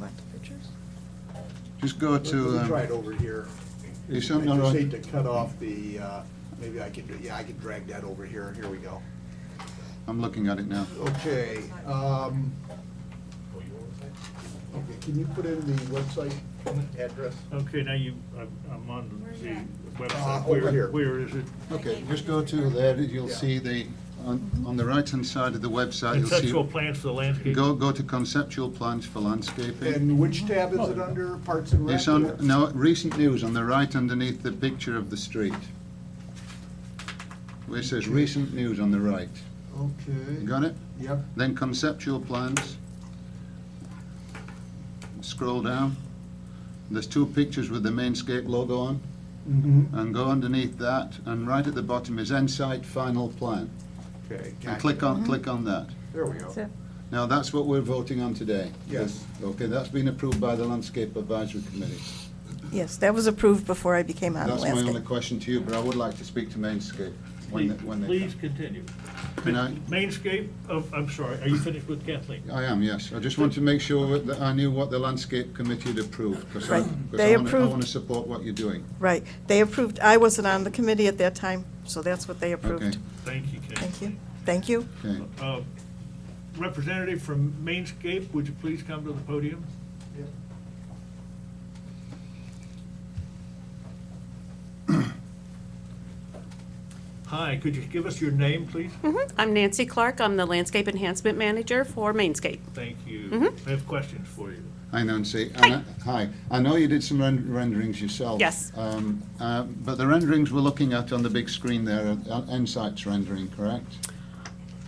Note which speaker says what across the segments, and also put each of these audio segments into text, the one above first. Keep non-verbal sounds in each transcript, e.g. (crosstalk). Speaker 1: want the pictures?
Speaker 2: Just go to,
Speaker 3: Let me try it
Speaker 2: um,
Speaker 3: over here.
Speaker 2: you sent, no,
Speaker 3: I just
Speaker 2: no,
Speaker 3: need to cut off the, uh, maybe I could, do- yeah, I could drag that over here. Here we go.
Speaker 2: I'm looking at it now.
Speaker 3: Oh. Okay, um, okay, can you put in the website address?
Speaker 4: Okay, now you, I'm- I'm on
Speaker 5: Where's
Speaker 4: the
Speaker 5: that?
Speaker 4: website.
Speaker 3: Uh, over
Speaker 4: Where-
Speaker 3: here.
Speaker 4: Where is it?
Speaker 2: Okay, just go to there, you'll
Speaker 3: Yeah.
Speaker 2: see the, on, on the right-hand side of the website,
Speaker 4: Conceptual
Speaker 2: you'll
Speaker 4: plans for the
Speaker 2: see,
Speaker 4: landscape.
Speaker 2: go, go to conceptual plans for landscaping.
Speaker 3: And which tab is it under? Parts and Rec?
Speaker 2: It's on, no, recent news on the right underneath the picture of the street. Where it says recent news on the right. You
Speaker 3: Okay,
Speaker 2: got it?
Speaker 3: yep.
Speaker 2: Then conceptual plans. Scroll down. There's two pictures with the Mainscape logo on.
Speaker 3: Mm-hmm.
Speaker 2: And go underneath that, and right at the bottom is Ensite Final Plan.
Speaker 3: Okay.
Speaker 2: And
Speaker 3: gotcha.
Speaker 2: click
Speaker 1: Mm-hmm.
Speaker 2: on, click on that.
Speaker 3: There we
Speaker 2: Oh.
Speaker 3: go.
Speaker 1: So,
Speaker 2: Now, that's what we're voting on today.
Speaker 3: Yes.
Speaker 2: Okay, that's been approved by the Landscape Advisory Committee.
Speaker 1: Yes, that was approved before I became on the
Speaker 2: That's my only
Speaker 1: landscape.
Speaker 2: question to you, but I would like to speak to Mainscape when they, when they come.
Speaker 4: Please continue.
Speaker 2: Can I-
Speaker 4: Mainscape, oh, I'm sorry, are you finished with Kathleen?
Speaker 2: I am, yes. I just want to make sure that I knew what the Landscape Committee had approved, because I,
Speaker 1: Right.
Speaker 2: 'cause
Speaker 1: They
Speaker 2: I want to, I
Speaker 1: approved-
Speaker 2: want to support what you're doing.
Speaker 1: Right, they approved, I wasn't on the committee at that time, so that's what they
Speaker 2: Okay,
Speaker 1: approved.
Speaker 4: Thank you,
Speaker 1: Thank
Speaker 4: Kathleen.
Speaker 1: you, thank you.
Speaker 2: okay.
Speaker 4: Uh, Representative from Mainscape, would you please come to the podium? Hi, could you give us your name, please?
Speaker 6: Mm-hmm. I'm Nancy Clark. I'm the Landscape Enhancement Manager for Mainscape.
Speaker 4: Thank you.
Speaker 1: Mm-hmm.
Speaker 4: I have questions for you.
Speaker 2: Hi Nancy. And I- Hi. I know you did some ren- renderings yourself.
Speaker 6: Yes.
Speaker 2: Um, uh, But the renderings we're looking at on the big screen there are Ensight's rendering, correct?
Speaker 6: (laughs)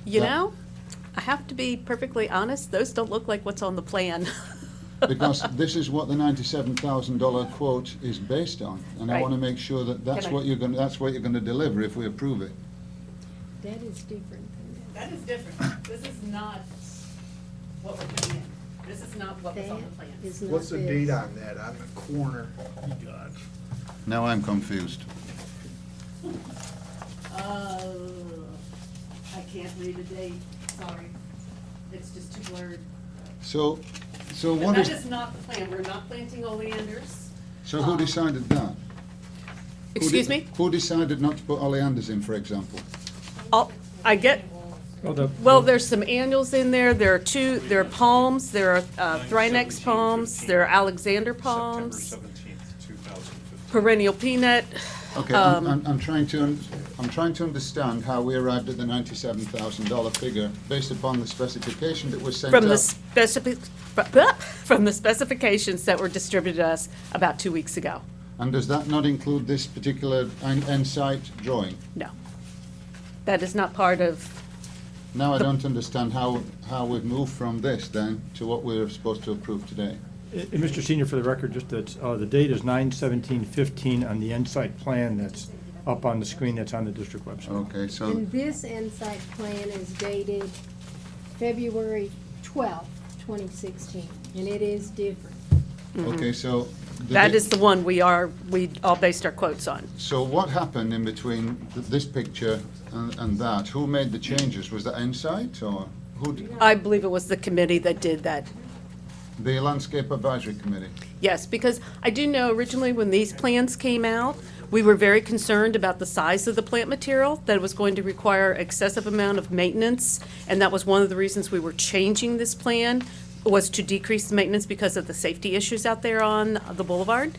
Speaker 6: You
Speaker 2: Yeah.
Speaker 6: know, I have to be perfectly honest, those don't look like what's on the plan. (laughs)
Speaker 2: Because this is what the ninety-seven thousand dollar quote is based on. And I
Speaker 6: Right.
Speaker 2: want to make sure that that's
Speaker 6: Can I-
Speaker 2: what you're going, to that's what you're going to deliver if we approve it.
Speaker 7: That is different than that.
Speaker 6: That is different. This is not what we're putting in. This is not what
Speaker 7: That is not
Speaker 3: What's the
Speaker 7: this.
Speaker 3: date on that? On the corner?
Speaker 4: God.
Speaker 2: Now I'm confused.
Speaker 6: Uh, I can't read the date, sorry. It's just too blurred.
Speaker 2: So, so
Speaker 6: But
Speaker 2: what
Speaker 6: that
Speaker 2: is,
Speaker 6: is not the plan. We're not planting oleanders.
Speaker 2: so who
Speaker 6: um,
Speaker 2: decided that? Who de-
Speaker 6: Excuse me?
Speaker 2: Who decided not to put oleanders in, for example?
Speaker 6: Oh, I get, well, there's some annuals in there, there are two, there are palms, there are uh, Thrynex palms, there are Alexander palms,
Speaker 8: September seventeenth, two thousand fifteen.
Speaker 6: perennial peanut. um,
Speaker 2: Okay, I'm, I'm- I'm trying to, un- I'm trying to understand how we arrived at the ninety-seven thousand dollar figure based upon the specification that was sent out.
Speaker 6: From the specific, (laughs) from the specifications that were distributed to us about two weeks ago.
Speaker 2: And does that not include this particular en- Ensite drawing?
Speaker 6: No. That is not part of,
Speaker 2: Now I don't understand how, how we've moved from this then to what we're supposed to approve today.
Speaker 9: And Mr. Uh, Senior, for the record, just that, uh, the date is nine seventeen fifteen on the Insight plan that's up on the screen that's on the district website.
Speaker 2: Okay, so,
Speaker 7: And this insight plan is dated February twelfth, twenty sixteen, and it is different.
Speaker 2: okay, so. the
Speaker 6: Mm-hmm. that
Speaker 2: di-
Speaker 6: is the one we are, we all based our quotes on.
Speaker 2: So what happened in between th- this picture and, and that? Who made the changes? Was that Ensite or who, d-
Speaker 6: I believe it was the committee that did that.
Speaker 2: the Landscape Advisory Committee?
Speaker 6: Yes, because I do know originally when these plans came out, we were very concerned about the size of the plant material, that it was going to require excessive amount of maintenance, and that was one of the reasons we were changing this plan, was to decrease the maintenance because of the safety issues out there on the boulevard.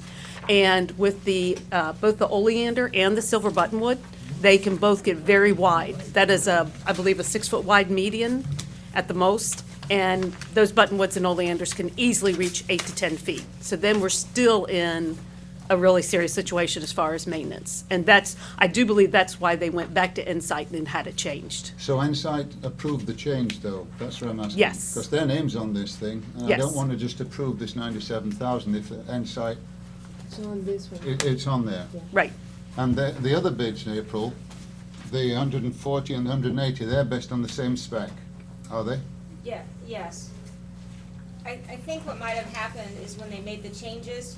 Speaker 6: And with the, uh, both the oleander and the silver buttonwood, they can both get very wide. That is a, I believe, a six-foot wide median at the most, and those buttonwoods and oleanders can easily reach eight to 10 feet. So then we're still in a really serious situation as far as maintenance. And that's, I do believe that's why they went back to Insight and had it changed.
Speaker 2: So Ensite approved the change though, that's what I'm asking.
Speaker 6: Yes.
Speaker 2: Because their name's on this thing. and I don't
Speaker 6: Yes.
Speaker 2: want to just approve this ninety-seven thousand if Ensite,
Speaker 7: It's on this one.
Speaker 2: it, it's on there.
Speaker 6: Right.
Speaker 2: And the, the other bids in April, the 140 and 180, they're based on the same spec, are they?
Speaker 10: Yeah, yes. I, I think what might have happened is when they made the changes,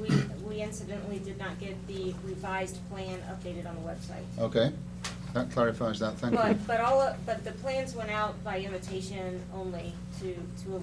Speaker 10: we, we incidentally did not get the revised plan updated on the website.
Speaker 2: Okay, that clarifies that, thank you.
Speaker 10: But, but all, of- but the plans went out by invitation only to, to a